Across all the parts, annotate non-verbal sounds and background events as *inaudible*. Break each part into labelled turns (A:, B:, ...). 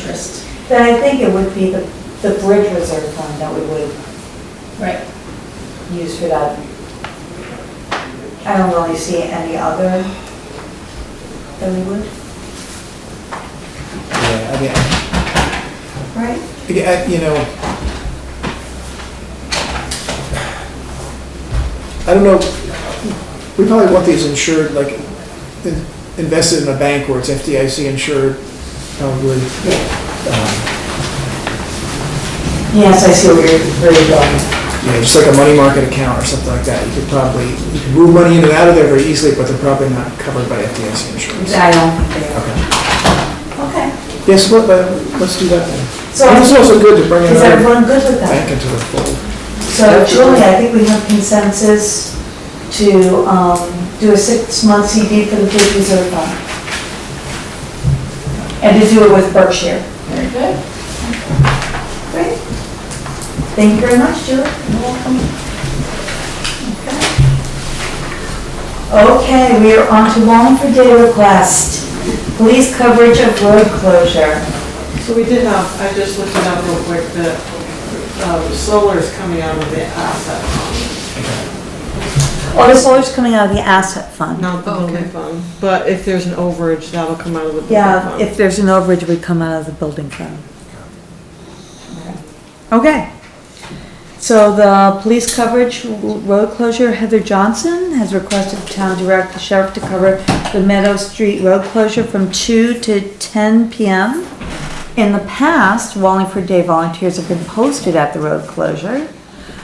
A: interest.
B: Then I think it would be the, the bridge reserve fund that we would
A: Right.
B: use for that. I don't really see any other that we would,
C: Yeah, I mean,
B: right?
C: Yeah, I- you know, I don't know, we probably want these insured, like, in- invested in a bank where it's FDIC insured, probably. Um,
B: Yes, I see where you're, where you're going.
C: Yeah, just like a money market account or something like that, you could probably, you could move money in and out of there very easily, but they're probably not covered by FDIC insurance.
B: I don't think they are.
C: Okay.
B: Okay.
C: Yes, let, let- let's do that then.
B: So
C: And it's also good to bring
B: is
C: another
B: everyone good with that?
C: bank into the fold.
B: So Julie, I think we have consensus to, um, do a six-month CD for the bridge reserve fund. And to do it with Berkshire.
A: Very good.
B: Great. Thank you very much, Julie. You're welcome. Okay, we are on to Wallingford Day request, police coverage of road closure.
D: So we did have, I just looked it up real quick, the um, solar is coming out of the asset
B: Oh, the solar's coming out of the asset
D: fund,
B: fund.
D: not
E: Oh,
D: the building fund. But if there's an overage, that'll come out of the building
B: Yeah,
D: fund.
B: if there's an overage, it would come out of the building fund. Okay. So the police coverage, road closure, Heather Johnson has requested the town direct the sheriff to cover the Meadow Street road closure from two to ten PM. In the past, Wallingford Day volunteers have been posted at the road closure.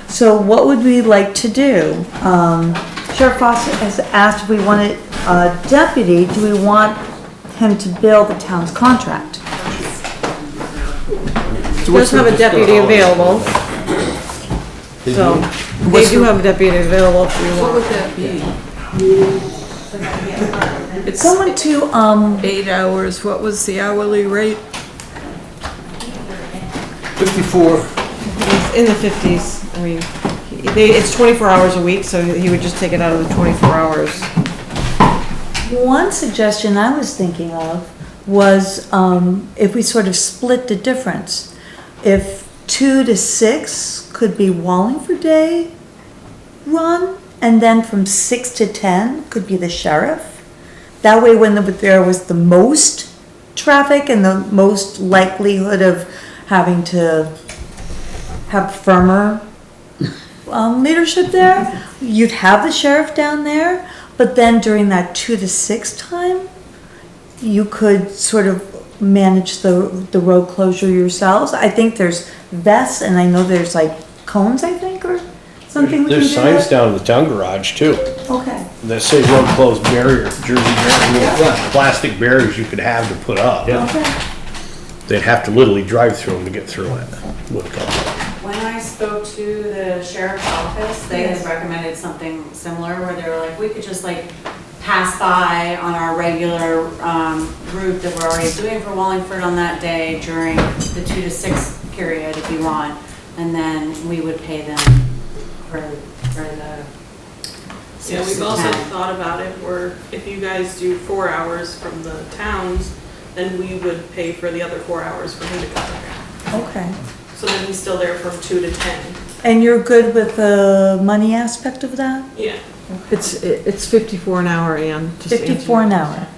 B: So what would we like to do? Um, Sheriff Foster has asked if we wanted a deputy, do we want him to bill the town's contract?
D: Does have a deputy available, so they do have a deputy available if you
F: What
D: want.
F: would that be? It's
B: Someone to, um,
F: eight hours, what was the hourly rate?
C: 54.
D: It's in the fifties, I mean, they, it's twenty-four hours a week, so he would just take it out of the twenty-four hours.
B: One suggestion I was thinking of was um, if we sort of split the difference. If two to six could be Wallingford Day run, and then from six to ten could be the sheriff. That way, when the- there was the most traffic and the most likelihood of having to have firmer um, leadership there. You'd have the sheriff down there, but then during that two to six time, you could sort of manage the, the road closure yourselves. I think there's vests and I know there's like cones, I think, or something. we can
G: There's
B: do
G: signs
B: that.
G: down in the town garage too,
B: Okay.
G: that say road closed barrier, Jersey barrier, little plastic barriers you could have to put up.
B: Okay.
G: They'd have to literally drive through them to get through it. Would come.
H: When I spoke to the sheriff's office, they had recommended something similar where they were like, we could just like pass by on our regular um, route that we're already doing for Wallingford on that day during the two to six period if you want. And then we would pay them for, for the
E: Yeah,
H: six
E: we've
H: to
E: also *laughs*
H: ten.
E: thought about if we're, if you guys do four hours from the towns, then we would pay for the other four hours for him to cover.
B: Okay.
E: So then he's still there from two to ten.
B: And you're good with the money aspect of that?
E: Yeah.
D: It's, it's fifty-four an hour, Ann. just to answer your
B: Fifty-four an hour.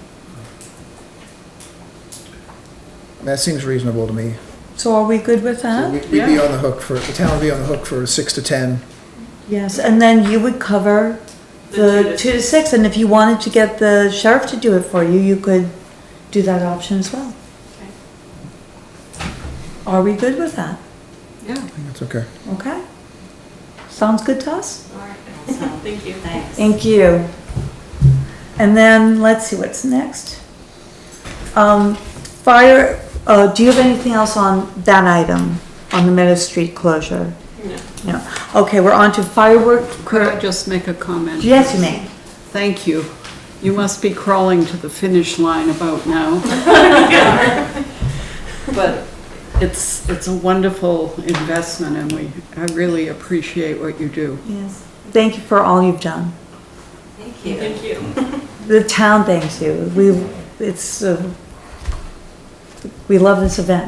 C: That seems reasonable to me.
B: So are we good with
C: So
B: that?
C: we- We'd be on the hook for, the town would be on the hook for six to 10.
B: Yes, and then you would cover the two to six, and if you wanted to get the sheriff to do it for you, you could do that option as well. Are we good with that?
C: I think that's okay.
B: Okay? Sounds good to us?
H: All right, so,
E: Thank you.
H: Thanks.
B: Thank you. And then, let's see what's next. Um, fire, uh, do you have anything else on that item, on the Meadow Street closure?
E: No.
B: No. Okay, we're on to firework,
F: Could I just make a comment?
B: yes, you may.
F: Thank you. You must be crawling to the finish line
B: *laughs*
F: about now. But it's, it's a wonderful investment and we, I really appreciate what you do.
B: Yes. Thank you for all you've done.
H: Thank you.
E: Thank you.
B: The town thanks you. We, it's, uh, We love this event.